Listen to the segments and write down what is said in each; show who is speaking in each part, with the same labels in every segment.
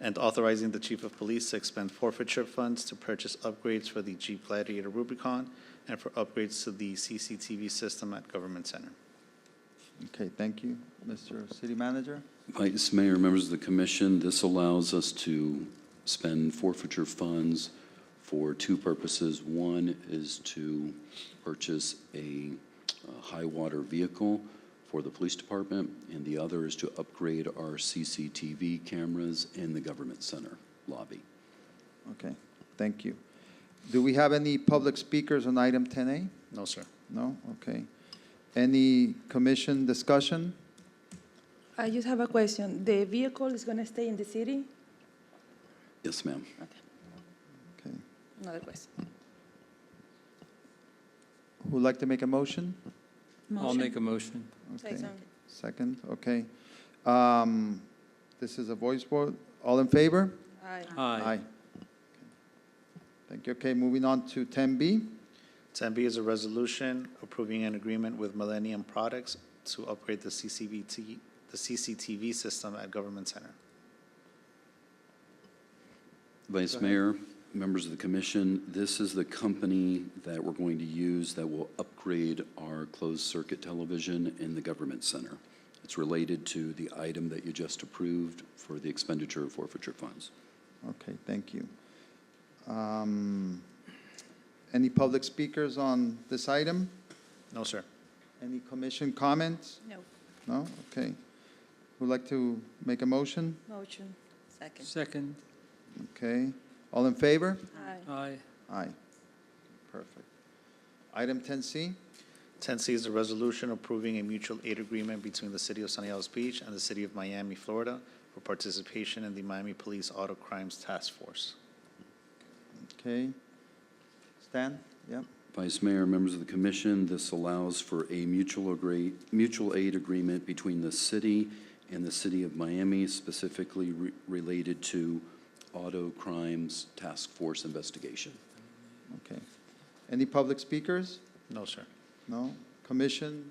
Speaker 1: and authorizing the chief of police to expend forfeiture funds to purchase upgrades for the Jeep Gladiator Rubicon and for upgrades to the CCTV system at Government Center.
Speaker 2: Okay, thank you. Mr. City Manager?
Speaker 3: Vice Mayor, members of the commission, this allows us to spend forfeiture funds for two purposes. One is to purchase a uh, high water vehicle for the police department, and the other is to upgrade our CCTV cameras in the government center lobby.
Speaker 2: Okay, thank you. Do we have any public speakers on item 10A?
Speaker 1: No, sir.
Speaker 2: No? Okay. Any commission discussion?
Speaker 4: I just have a question. The vehicle is going to stay in the city?
Speaker 3: Yes, ma'am.
Speaker 4: Okay,
Speaker 2: Okay.
Speaker 4: another question.
Speaker 2: Who'd like to make a motion?
Speaker 5: I'll make a motion.
Speaker 2: Okay.
Speaker 4: Second.
Speaker 2: Second, okay. Um, This is a voice vote. All in favor?
Speaker 4: Aye.
Speaker 5: Aye.
Speaker 2: Thank you. Okay, moving on to 10B.
Speaker 1: 10B is a resolution approving an agreement with Millennium Products to upgrade the CCTV, the CCTV system at Government Center.
Speaker 3: Vice Mayor, members of the commission, this is the company that we're going to use that will upgrade our closed-circuit television in the government center. It's related to the item that you just approved for the expenditure of forfeiture funds.
Speaker 2: Okay, thank you. Um, Any public speakers on this item?
Speaker 1: No, sir.
Speaker 2: Any commission comments?
Speaker 4: No,
Speaker 2: No? Okay. Who'd like to make a motion?
Speaker 4: motion. Second.
Speaker 5: Second.
Speaker 2: Okay. All in favor?
Speaker 4: Aye.
Speaker 5: Aye.
Speaker 2: Aye. Perfect. Item 10C?
Speaker 1: 10C is a resolution approving a mutual aid agreement between the City of Sunny Isles Beach and the City of Miami, Florida, for participation in the Miami Police Auto Crimes Task Force.
Speaker 2: Okay. Stan? Yep.
Speaker 3: Vice Mayor, members of the commission, this allows for a mutual agree, mutual aid agreement between the city and the City of Miami, specifically re- related to auto crimes task force investigation.
Speaker 2: Okay. Any public speakers?
Speaker 1: No, sir.
Speaker 2: No? Commission?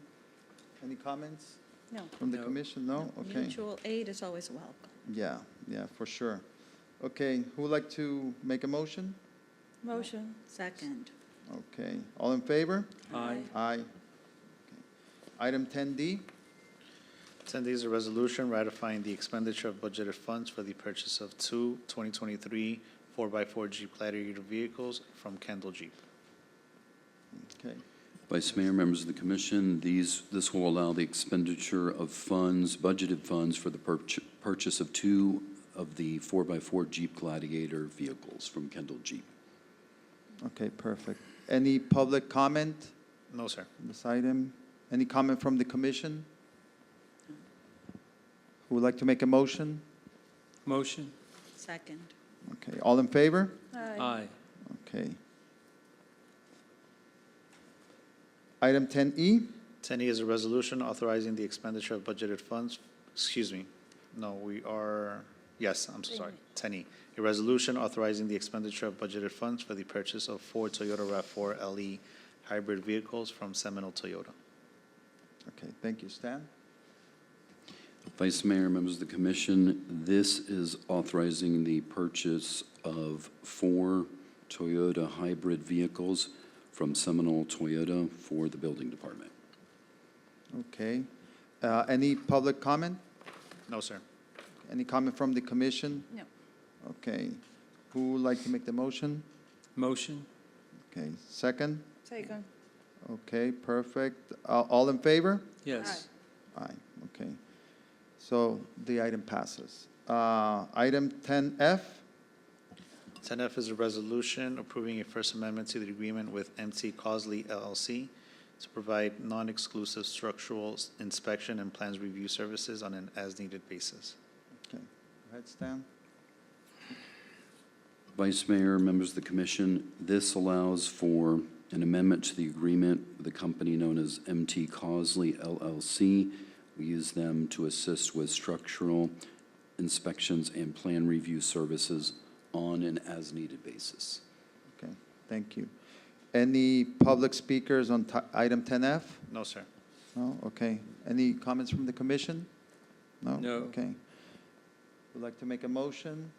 Speaker 2: Any comments
Speaker 4: No.
Speaker 2: from the
Speaker 5: No.
Speaker 2: commission? No? Okay.
Speaker 6: Mutual aid is always welcome.
Speaker 2: Yeah, yeah, for sure. Okay, who would like to make a motion?
Speaker 4: Motion.
Speaker 6: Second.
Speaker 2: Okay. All in favor?
Speaker 5: Aye.
Speaker 2: Aye. Okay. Item 10D?
Speaker 1: 10D is a resolution ratifying the expenditure of budgeted funds for the purchase of two 2023 4x4 Jeep Gladiator vehicles from Kendall Jeep.
Speaker 2: Okay.
Speaker 3: Vice Mayor, members of the commission, these, this will allow the expenditure of funds, budgeted funds for the purch- purchase of two of the four-by-four Jeep Gladiator vehicles from Kendall Jeep.
Speaker 2: Okay, perfect. Any public comment
Speaker 1: No, sir.
Speaker 2: on this item? Any comment from the commission? Who would like to make a motion?
Speaker 5: Motion.
Speaker 6: Second.
Speaker 2: Okay, all in favor?
Speaker 5: Aye.
Speaker 2: Okay. Item E? 10E,
Speaker 1: 10E is a resolution authorizing the expenditure of budgeted funds, excuse me, no, we are, yes, I'm so sorry, 10E. A resolution authorizing the expenditure of budgeted funds for the purchase of four Toyota RAV4 LE hybrid vehicles from Seminole Toyota.
Speaker 2: okay, thank you, Stan.
Speaker 3: Vice Mayor, members of the commission, this is authorizing the purchase of four Toyota hybrid vehicles from Seminole Toyota for the building department.
Speaker 2: Okay. Uh, Any public comment?
Speaker 1: No, sir.
Speaker 2: Any comment from the commission?
Speaker 4: No.
Speaker 2: Okay. Who would like to make the motion?
Speaker 5: Motion.
Speaker 2: Okay, second?
Speaker 4: Second.
Speaker 2: Okay, perfect. Uh, All in favor?
Speaker 5: Yes.
Speaker 2: Aye, okay. So the item passes. Uh, Item 10F,
Speaker 1: 10F is a resolution approving a First Amendment to the agreement with MC Cosley LLC to provide non-exclusive structural inspection and plans review services on an as-needed basis.
Speaker 2: Go ahead, Stan.
Speaker 3: Vice Mayor, members of the commission, this allows for an amendment to the agreement with a company known as MT Cosley LLC. We use them to assist with structural inspections and plan review services on an as-needed basis.
Speaker 2: Okay, thank you. Any public speakers on ti- item 10F?
Speaker 1: No, sir.
Speaker 2: No, okay. Any comments from the commission? No?
Speaker 5: No.
Speaker 2: Okay. Would like to make a motion?